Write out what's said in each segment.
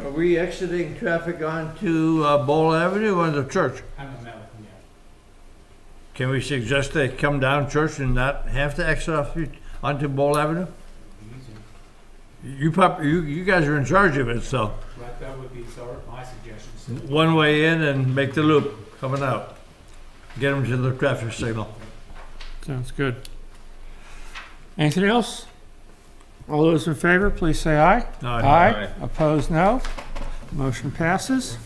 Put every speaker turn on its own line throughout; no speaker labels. Are we exiting traffic onto uh, Bowl Avenue or the church?
I haven't met with him yet.
Can we suggest they come down church and not have to exit off the- onto Bowl Avenue?
It'd be easier.
You prob, you, you guys are in charge of it, so
But that would be sort of my suggestion, so
one way in and make the loop coming out. Get them to the traffic signal.
Sounds good. Anything else? All those in favor, please say aye. Opposed, no. Motion passes.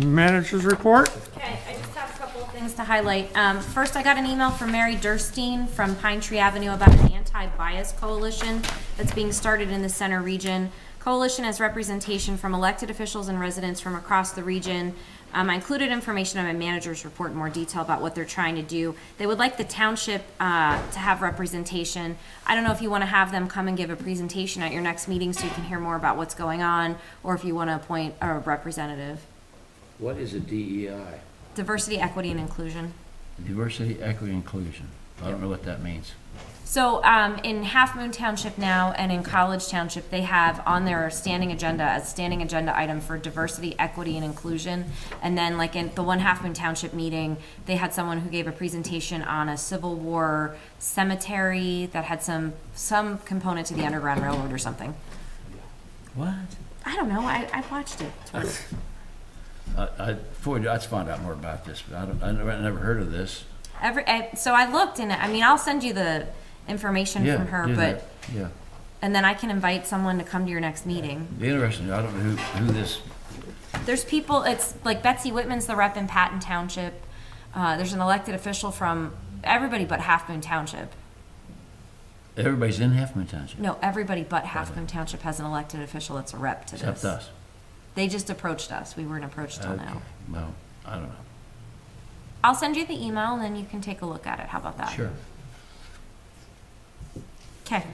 Managers report?
Okay, I just have a couple of things to highlight. Um, first, I got an email from Mary Durstein from Pine Tree Avenue about an anti-bias coalition that's being started in the center region. Coalition has representation from elected officials and residents from across the region. Um, I included information on my manager's report in more detail about what they're trying to do. They would like the township, uh, to have representation. I don't know if you wanna have them come and give a presentation at your next meeting so you can hear more about what's going on, or if you wanna appoint a representative.
What is a E DEI?
Diversity, equity, and inclusion.
Diversity, equity, inclusion. I don't know what that means.
So um, in Half Moon Township now and in College Township, they have on their standing agenda a standing agenda item for diversity, equity, and inclusion. And then, like in the one Half Moon Township meeting, they had someone who gave a presentation on a Civil War cemetery that had some some component to the Underground Railroad or something.
What?
I don't know. I, I watched it.
I, I, before, I'd find out more about this, but I don't, I never, I never heard of this.
Every I, so I looked and I mean I'll send you the information
Yeah,
from her,
do
but
that. Yeah,
and then I can invite someone to come to your next meeting.
Be interesting, I don't know who, who this,
There's people, it's like Betsy Whitman's the rep in Patton Township. Uh, there's an elected official from everybody but Half Moon Township.
everybody's in Half Moon Township,
No, everybody but Half Moon Township has an elected official that's a rep to
except
this.
us.
They just approached us. We weren't approached till
Okay.
now.
Well, I don't know.
I'll send you the email and then you can take a look at it. How about that?
Sure.
Okay.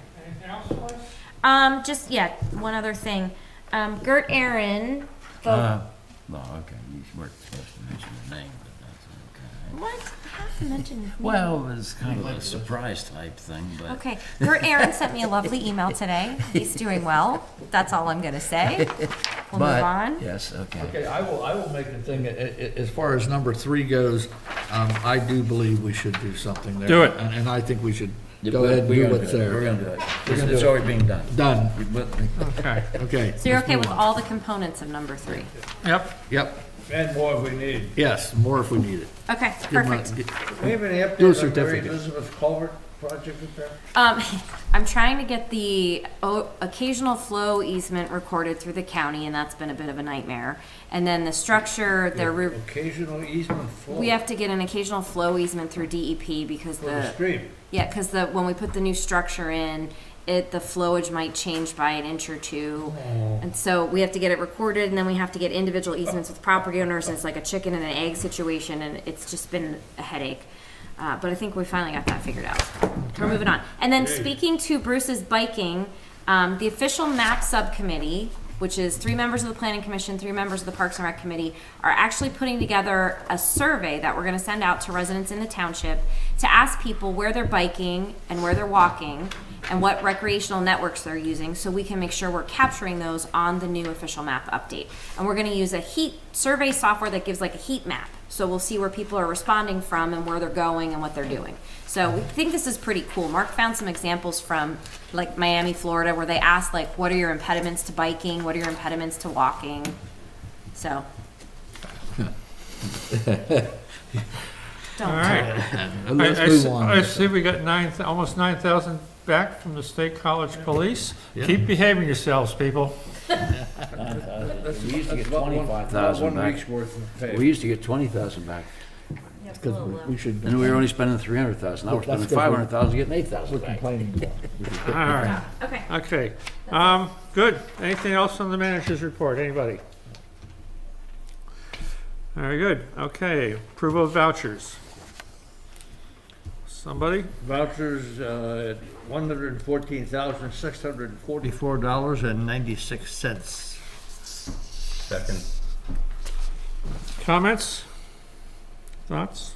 Um, just, yeah, one other thing. Um, Gert Aaron, the-
Uh, No, okay, you weren't supposed to mention the name, but that's okay.
what? I have to mention his name.
Well, it's kind of a surprise type thing, but.
Okay, your Aaron sent me a lovely email today. He's doing well. That's all I'm gonna say. We'll move
But-
on.
Yes, okay.
Okay, I will, I will make a thing, a- a- as far as number three goes, um, I do believe we should do something there.
Do it.
And and I think we should go ahead and
We're
do
gonna
what's
it. We're
there.
gonna do it.
We're gonna
It's
do it.
already being done.
Done,
You put-
Okay.
okay.
So you're
let's
okay
move
with
on.
all the components of number three?
Yep.
Yep,
And more if we need.
yes, more if we need it.
Okay,
Give 'em a-
perfect.
Do we have any
Do a
updates on Mary
certificate.
Elizabeth Culvert project repair?
Um, I'm trying to get the o- occasional flow easement recorded through the county, and that's been a bit of a nightmare. And then the structure, they're, re-
Occasional easement flow
we have uh, to get an occasional flow easement through DEP because
for the
the
stream.
Yeah, because the, when we put the new structure in, it, the flowage might change by an inch or two. And so we have to get it recorded and then we have to get individual easements with property owners and it's like a chicken and an egg situation and it's just been a headache. Uh, but I think we finally got that figured out. We're moving on. And then speaking to Bruce's biking, um, the official map subcommittee, which is three members of the planning commission, three members of the Parks and Rec Committee, are actually putting together a survey that we're gonna send out to residents in the township to ask people where they're biking and where they're walking and what recreational networks they're using, so we can make sure we're capturing those on the new official map update. And we're gonna use a heat survey software that gives like a heat map, so we'll see where people are responding from and where they're going and what they're doing. So we think this is pretty cool. Mark found some examples from like Miami, Florida, where they asked like, what are your impediments to biking? What are your impediments to walking? So.
All
Don't.
right.
Let's
I- I
move
see-
on.
I see we got nine, thou- almost 9,000 back from the State College Police. Keep behaving yourselves, people.
We used to get
About one-
twenty-five thousand
about One
back.
week's worth of pay.
We used to get twenty thousand back,
Because we- we should,
and we were only spending three hundred thousand. Now we're
Well, that's
spending
'cause
five
we're-
hundred thousand, getting eight
we're
thousand back.
complaining about it.
All right.
Okay.
Okay. Um, good. Anything else on the manager's report? Anybody? Very good. Okay. Approval of vouchers. Somebody?
Vouchers, uh, one hundred and fourteen thousand, six hundred and forty-four dollars and ninety-six cents.
Second.
Comments? Thoughts?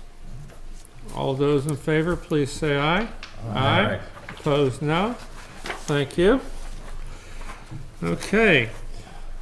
All those in favor, please say aye. Aye. Opposed, no. Thank you. Okay,